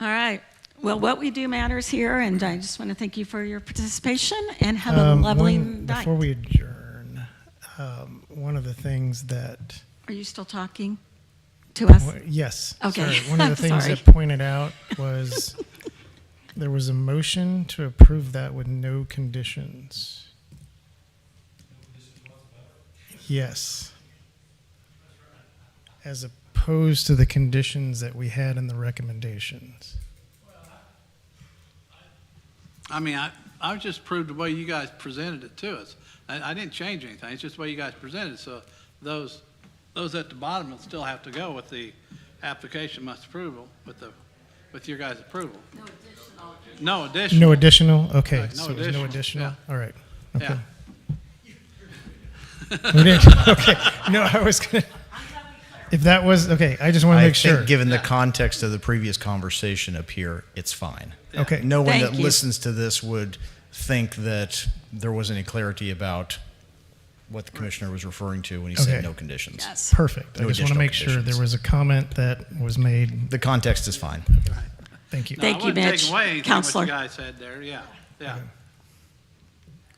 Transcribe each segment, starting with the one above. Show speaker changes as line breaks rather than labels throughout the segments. All right. Well, what we do matters here, and I just want to thank you for your participation and have a
Um,
lovely
one-
night.
Before we adjourn, um, one of the things that,
Are you still talking to us?
yes.
Okay.
sorry, One of the
I'm
things
sorry.
that pointed out was there was a motion to approve that with no conditions. Yes. As opposed to the conditions that we had in the recommendations.
I mean, I, I was just proved the way you guys presented it to us. I, I didn't change anything, it's just the way you guys presented, it. so those, those at the bottom will still have to go with the application must approval, with the, with your guys' approval. No additional.
No additional? Okay,
Right, Uh, no
so there's no
additional,
additional? All right. Okay.
Yeah,
We didn't- okay. No, I was gonna. If that was okay, I just want to
I
make sure.
think given the context of the previous conversation up here, it's fine.
okay.
No one
Thank
that
you.
listens to this would think that there was any clarity about what the commissioner was referring to when he
Okay.
said no conditions.
Yes.
Perfect. I
No
just want to
additional
make sure there
conditions.
was a comment that was made.
The context is fine.
Thank you.
No, I
Thank you,
wasn't taking
Mitch.
away anything
Counselor.
What you guys said there, yeah, yeah.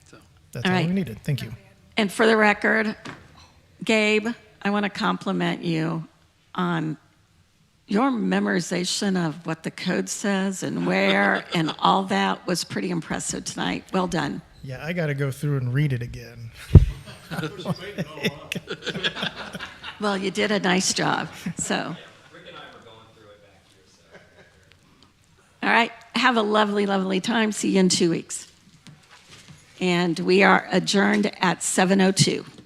So,
That's
All
all,
right.
we needed. Thank you.
And for the record, Gabe, I want to compliment you on your memorization of what the code says and where and all that was pretty impressive tonight. Well done.
Yeah, I got to go through and read it again.
Well, you did a nice job. So,
Rick and I were going through it back here, so.
all right. Have a lovely, lovely time. See you in two weeks. And we are adjourned at 7:02.